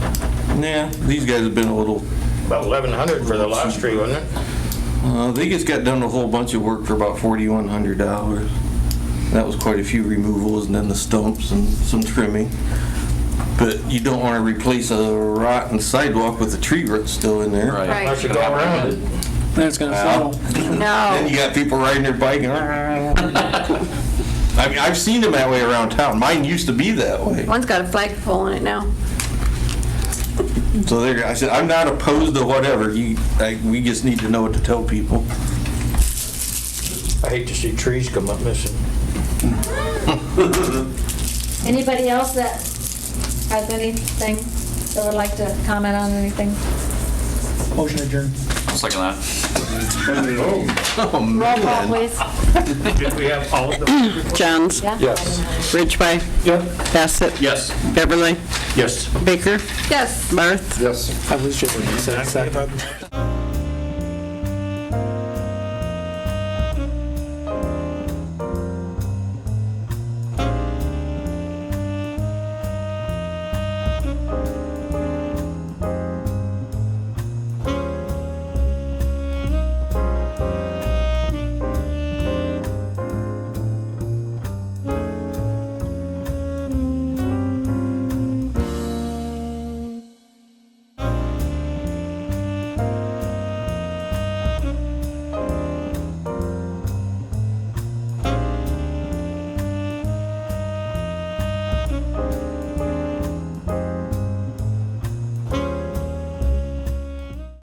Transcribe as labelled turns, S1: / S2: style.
S1: Yeah, these guys have been a little,
S2: About 1,100 for the last tree, wasn't it?
S1: uh, they just got done a whole bunch of work for about forty-one hundred dollars. That was quite a few removals and then the stumps and some trimming. But you don't wanna replace a rotten sidewalk with a tree root still in there.
S3: Right.
S2: I should go around it.
S4: Then it's gonna settle.
S1: Then you
S3: No,
S1: got people riding their bike and. I mean, I've seen them that way around town. Mine used to be that way.
S3: one's got a flagpole in it now.
S1: So there, I said, I'm not opposed to whatever. You, like, we just need to know what to tell people.
S2: I hate to see trees come up missing.
S5: Anybody else that has anything that would like to comment on anything?
S4: Motion adjourned.
S6: Second that.
S1: Oh,
S5: Roll call, please.
S2: Did we have all of them?
S7: Johns.
S5: Yeah?
S2: Yes.
S7: Ridgway. Bassett.
S6: Yes.
S7: Beverly.
S2: Yes.
S7: Baker.
S3: Yes.
S7: Barth.
S4: I was just gonna say second.